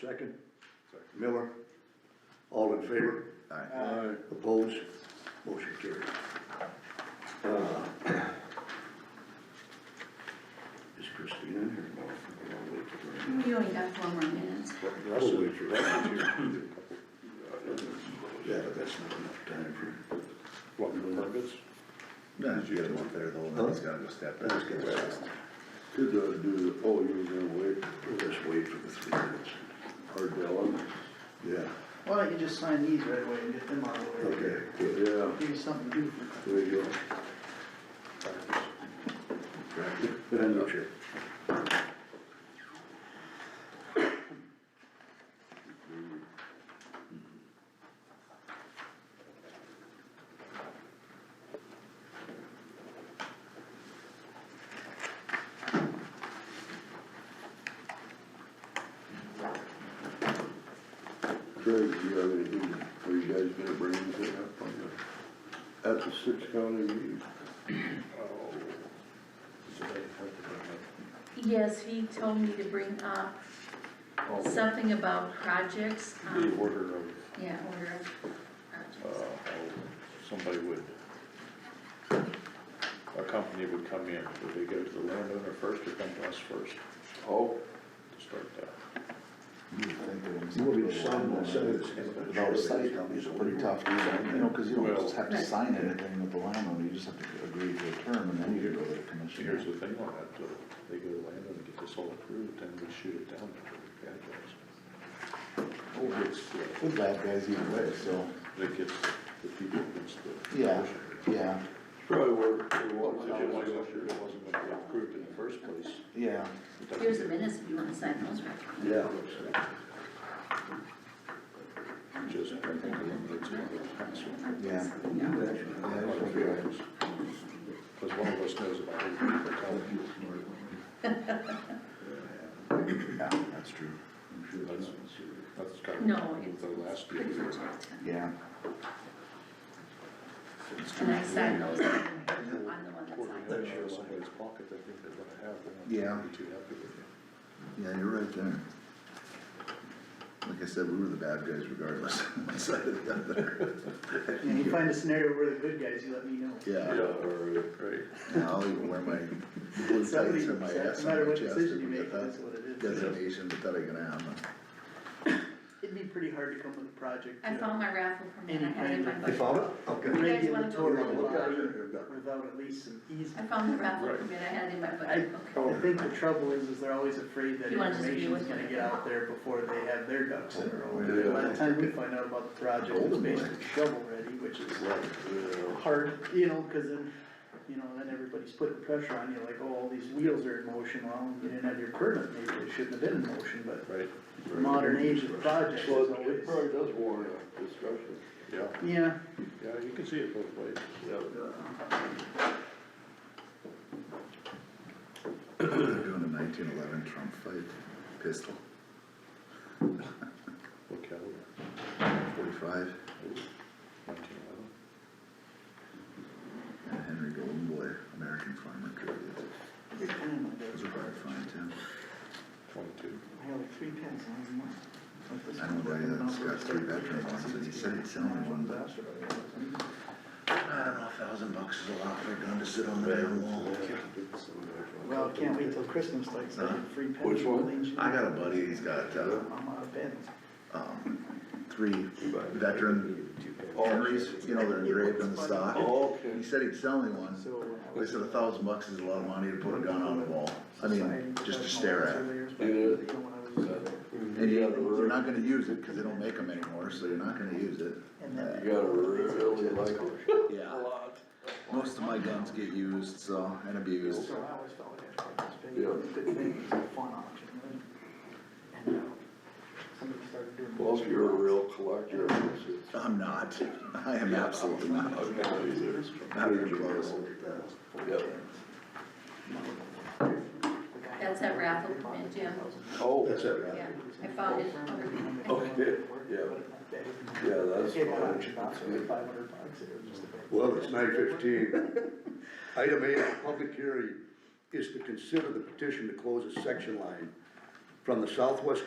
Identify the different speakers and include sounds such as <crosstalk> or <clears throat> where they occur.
Speaker 1: Second? Miller? All in favor?
Speaker 2: Aye.
Speaker 1: Opposed? Motion carried. Uh, <clears throat> Is Christina in here? No. I'll wait for her.
Speaker 3: We only got four more minutes.
Speaker 1: That'll wait for her. <laughs> Yeah, but that's not enough time for. What, permits?
Speaker 2: No, you gotta look there though, then he's gotta go step back.
Speaker 1: Let's get that.
Speaker 4: Could uh, do, oh, you were gonna wait,
Speaker 1: We'll just wait for the three minutes.
Speaker 4: Ardell, and-
Speaker 1: Yeah,
Speaker 5: Why don't you just sign these right away and get them out of the way?
Speaker 1: okay, good.
Speaker 4: yeah,
Speaker 5: Give you something to do.
Speaker 1: There you go. And the chair.
Speaker 4: Craig, do you have anything, are you guys gonna bring anything up on the, at the six county meeting?
Speaker 6: Oh.
Speaker 3: Yes, he told me to bring up something about projects,
Speaker 2: The
Speaker 3: um,
Speaker 2: order of,
Speaker 3: yeah, order of
Speaker 2: uh,
Speaker 3: projects.
Speaker 2: how somebody would, a company would come in, would they go to the landowner first or come to us first
Speaker 4: Oh,
Speaker 2: to start that?
Speaker 1: You want me to sign one, send it to him?
Speaker 6: Without a site, it's pretty tough to, do, you know, cause you don't
Speaker 2: Well-
Speaker 6: just have to sign anything with the landowner, you just have to agree to a term and then you go to the
Speaker 2: So Here's
Speaker 6: commission.
Speaker 2: the thing on that, though, they go to the landowner, get this all approved, and we shoot it down after we advertise.
Speaker 6: Oh,
Speaker 2: It's, uh,
Speaker 6: With bad guys either way, so,
Speaker 2: That gets the people against the.
Speaker 6: yeah, yeah,
Speaker 2: Probably were, they
Speaker 6: Well,
Speaker 2: were, it wasn't, it wasn't gonna be approved in the first place.
Speaker 6: yeah.
Speaker 2: it doesn't
Speaker 3: Here's the
Speaker 2: get-
Speaker 3: minutes if you wanna sign those right away.
Speaker 1: Yeah.
Speaker 2: Just, I think eliminates one of those hassles.
Speaker 6: Yeah.
Speaker 3: Yeah.
Speaker 6: Yeah, that's what we are.
Speaker 2: Cause one of us knows about it, but tell you.
Speaker 6: Yeah, that's true,
Speaker 2: That's, that's kind of.
Speaker 3: No, it's
Speaker 2: The last
Speaker 3: pretty
Speaker 2: year.
Speaker 3: much all done.
Speaker 6: yeah.
Speaker 3: And I signed those on the on the one that's
Speaker 2: Quarter
Speaker 3: signed.
Speaker 2: million out of somebody's pocket, I think they're gonna have, they're
Speaker 6: Yeah.
Speaker 2: not gonna be too happy with you.
Speaker 4: yeah, you're right there. Like I said, we were the bad guys regardless, <laughs> one side or the other.
Speaker 5: And you find a scenario where the good guys, you let me know.
Speaker 4: Yeah,
Speaker 2: right.
Speaker 4: now I'll even wear my blue
Speaker 5: Somebody-
Speaker 4: tights and my ass
Speaker 5: No matter
Speaker 4: on my
Speaker 5: what
Speaker 4: chest
Speaker 5: decision you
Speaker 4: and get
Speaker 5: make, that's
Speaker 4: that
Speaker 5: what it is.
Speaker 4: designation, but that ain't gonna happen.
Speaker 5: It'd be pretty hard to come with a project.
Speaker 3: I
Speaker 5: you know,
Speaker 3: found my raffle permit, I had it in my
Speaker 1: You
Speaker 3: budget.
Speaker 1: found it? Okay.
Speaker 3: You guys wanna
Speaker 5: regulatory
Speaker 3: go?
Speaker 5: law Without at least some
Speaker 3: I
Speaker 5: easement.
Speaker 3: found the raffle
Speaker 2: Right.
Speaker 3: permit, I had it in my
Speaker 5: I,
Speaker 3: budget, okay.
Speaker 5: I think the trouble is, is they're always afraid that
Speaker 3: You wanna just be
Speaker 5: information's
Speaker 3: with
Speaker 5: gonna
Speaker 3: it.
Speaker 5: get out there before they have their ducks in a row.
Speaker 4: Yeah.
Speaker 5: And By the time we find out about the project, it's
Speaker 4: Golden boy.
Speaker 5: basically shovel ready, which is
Speaker 4: Right.
Speaker 5: hard, you know, cause then, you know, then everybody's putting pressure on you, like, oh, all these wheels are in motion, well, you didn't have your permit, maybe it shouldn't have been in motion, but
Speaker 2: Right.
Speaker 5: the modern age of projects is
Speaker 4: Well, it
Speaker 5: always,
Speaker 4: probably does warrant a discussion.
Speaker 2: Yeah,
Speaker 5: yeah,
Speaker 2: yeah, you can see it both ways.
Speaker 4: They're doing a nineteen eleven Trump fight, pistol,
Speaker 2: Look at it,
Speaker 4: forty-five,
Speaker 2: nineteen eleven.
Speaker 4: and Henry Golden Boy, American farmer, tribute.
Speaker 5: every time I do
Speaker 4: Those
Speaker 5: it,
Speaker 4: are hard to find too.
Speaker 2: Twenty-two.
Speaker 5: I have like three pens last month. Like this
Speaker 4: I know a guy
Speaker 5: one,
Speaker 4: that's got three veteran ones, and he said he'd sell me one, but I don't know, a thousand bucks is a lot for a gun to sit on the damn wall.
Speaker 5: Well, can't wait till Christmas, like, so I have free pens.
Speaker 4: Which one?
Speaker 5: Clean shit.
Speaker 4: I got a buddy, he's got, uh,
Speaker 5: I'm out of pens.
Speaker 4: um, three veteran Henrys, you know, they're engraved on the stock. He said he'd sell me one,
Speaker 5: So. uh,
Speaker 4: I said a thousand bucks is a lot of money to put a gun on the wall, I mean, just to stare at.
Speaker 5: at. You know, when I was- uh,
Speaker 4: And you, you're not gonna use it, cause they don't make them anymore, so you're not gonna use it.
Speaker 5: And then.
Speaker 6: You gotta really like
Speaker 5: it.
Speaker 4: Yeah. Most of my guns get used, so, and abused.
Speaker 5: So I always felt like I had to play this big, big thing, it's a fun option, right? And, uh, somebody started doing.
Speaker 6: Well, if you're a real collector,
Speaker 4: I'm not, I am absolutely not. Not even close.
Speaker 3: That's that raffle permit, Jim.
Speaker 6: Oh,
Speaker 1: That's it, right?
Speaker 3: Yeah, I found it under
Speaker 6: Okay, yeah. yeah, that's
Speaker 5: Gave that
Speaker 6: fine.
Speaker 5: auction off for five hundred bucks, it was just a bit.
Speaker 1: Well, it's nine fifteen. <laughs> Item eight, on public hearing is to consider the petition to close a section line from the southwest